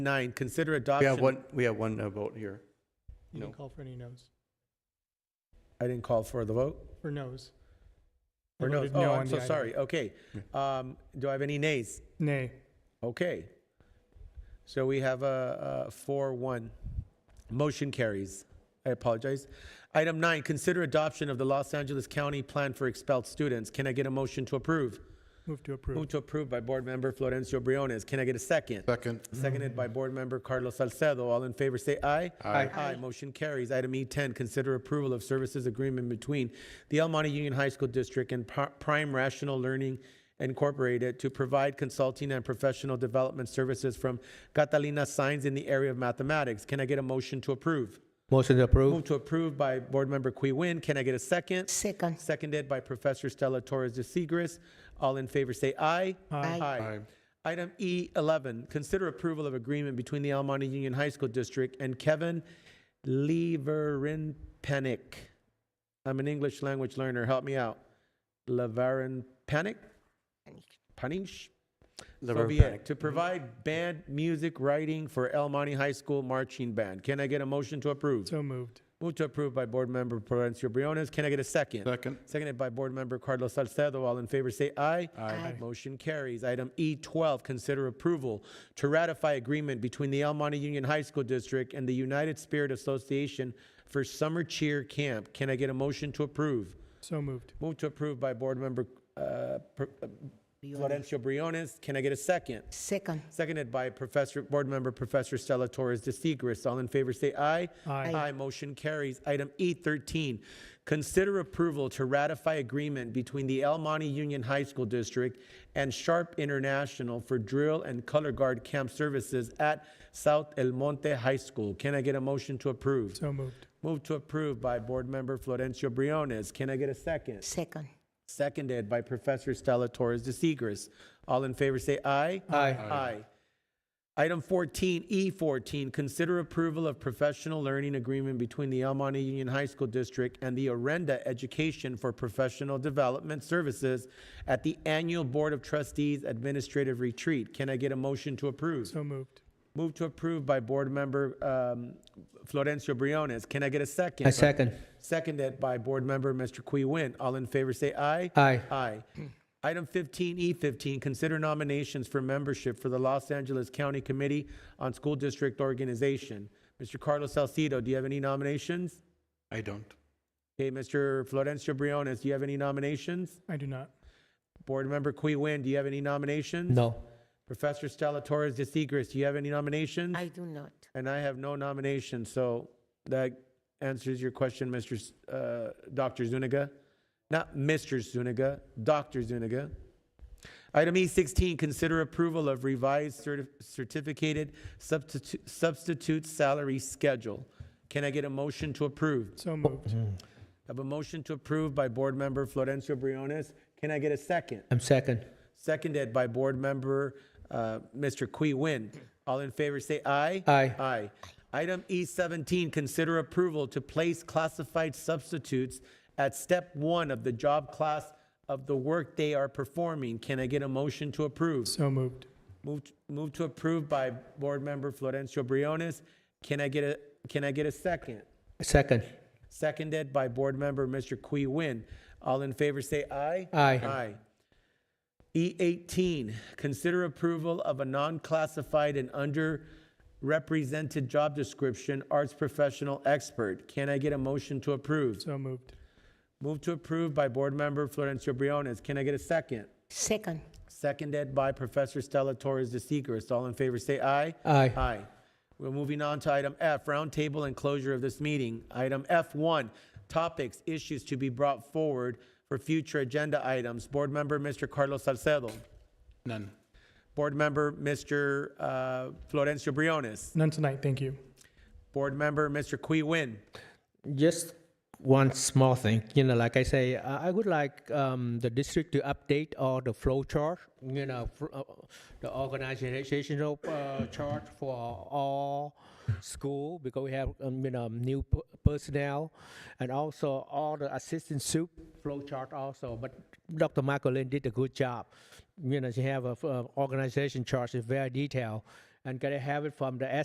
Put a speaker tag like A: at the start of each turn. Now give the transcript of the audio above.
A: Nine, consider
B: We
A: adoption.
B: have one, we have one no vote here.
C: You didn't
B: No.
C: call for any no's,
A: I didn't call for the vote.
C: for no's. I
A: Or no,
C: voted
A: oh,
C: on
A: I'm
C: the
A: so
C: item.
A: sorry. Okay. Um, do I have any nays?
C: Nay.
A: Okay. So we have a, a four, one. Motion carries. I apologize. Item nine, consider adoption of the Los Angeles County Plan for Expelled Students. Can I get a motion to approve?
C: Move to approve.
A: Move to approve by Board Member Florencio Briones. Can I get a second?
D: Second.
A: Seconded by Board Member Carlos Salcedo. All in favor, say aye.
D: Aye.
A: Aye, motion carries. Item E10, consider approval of services agreement between the El Monte Union High School District and Pri- Prime Rational Learning Incorporated to provide consulting and professional development services from Catalina Science in the area of mathematics. Can I get a motion to approve?
E: Motion to approve.
A: Move to approve by Board Member Qui Win. Can I get a second?
F: Second.
A: Seconded by Professor Stella Torres de Seigres. All in favor, say aye.
F: Aye.
A: Aye. Item E11, consider approval of agreement between the Almonte Union High School District and Kevin Leverin Panic. I'm an English language learner, help me out. Leverin Panic? Panish? So be it. To provide band music writing for El Monte High School Marching Band. Can I get a motion to approve?
C: So moved.
A: Move to approve by Board Member Florencio Briones. Can I get a second?
D: Second.
A: Seconded by Board Member Carlos Salcedo. All in favor, say aye.
F: Aye.
A: Motion carries. Item E12, consider approval to ratify agreement between the El Monte Union High School District and the United Spirit Association for Summer Cheer Camp. Can I get a motion to approve?
C: So moved.
A: Move to approve by Board Member uh, Pr- uh, Florencio Briones. Can I get a second?
F: Second.
A: Seconded by Professor, Board Member Professor Stella Torres de Seigres. All in favor, say aye.
C: Aye.
A: Aye, motion carries. Item E13, consider approval to ratify agreement between the El Monte Union High School District and Sharp International for drill and color guard camp services at South El Monte High School. Can I get a motion to approve?
C: So moved.
A: Move to approve by Board Member Florencio Briones. Can I get a second?
F: Second.
A: Seconded by Professor Stella Torres de Seigres. All in favor, say aye.
E: Aye.
A: Aye. Item 14, E14, consider approval of professional learning agreement between the El Monte Union High School District and the Orenda Education for Professional Development Services at the Annual Board of Trustees Administrative Retreat. Can I get a motion to approve?
C: So moved.
A: Move to approve by Board Member um, Florencio Briones. Can I get a second?
E: I second.
A: Seconded by Board Member Mr. Qui Win. All in favor, say aye.
E: Aye.
A: Aye. Item 15E15, consider nominations for membership for the Los Angeles County Committee on School District Organization. Mr. Carlos Salcido, do you have any nominations?
B: I don't.
A: Okay, Mr. Florencio Briones, do you have any nominations?
C: I do not.
A: Board Member Qui Win, do you have any nominations?
E: No.
A: Professor Stella Torres de Seigres, do you have any nominations?
F: I do not.
A: And I have no nomination, so that answers your question, Mr. S- uh, Dr. Zuniga. Not Mr. Zuniga, Dr. Zuniga. Item E16, consider approval of revised certi- certificated substitute, substitute salary schedule. Can I get a motion to approve?
C: So moved.
A: I have a motion to approve by Board Member Florencio Briones. Can I get a second?
E: I'm second.
A: Seconded by Board Member uh, Mr. Qui Win. All in favor, say aye.
E: Aye.
A: Aye. Item E17, consider approval to place classified substitutes at step one of the job class of the work they are performing. Can I get a motion to approve?
C: So moved.
A: Move, move to approve by Board Member Florencio Briones. Can I get a, can I get a second?
E: I Second.
A: Seconded by Board Member Mr. Qui Win. All in favor, say aye.
E: Aye.
A: Aye. E18, consider approval of a non-classified and underrepresented job description, arts professional expert. Can I get a motion to approve?
C: So moved.
A: Move to approve by Board Member Florencio Briones. Can I get a second?
F: Second.
A: Seconded by Professor Stella Torres de Seigres. All in favor, say aye.
E: Aye.
A: Aye. We're moving on to item F, roundtable and closure of this meeting. Item F1, topics, issues to be brought forward for future agenda items. Board Member, Mr. Carlos Salcedo.
B: None.
A: Board Member, Mr. uh, Florencio Briones.
C: None tonight, thank you.
A: Board Member, Mr. Qui Win.
E: Just one small thing, you know, like I say, I I would like um, the district to update all the flow chart, you know, fr- uh, the organizational uh, chart for all school because we have, um, you know, new p- personnel and also all the assistant soup flow chart also. But Dr. Michael Lynn did a good job. You know, she have a f- uh, organization chart, it's very detailed. and can I have it from the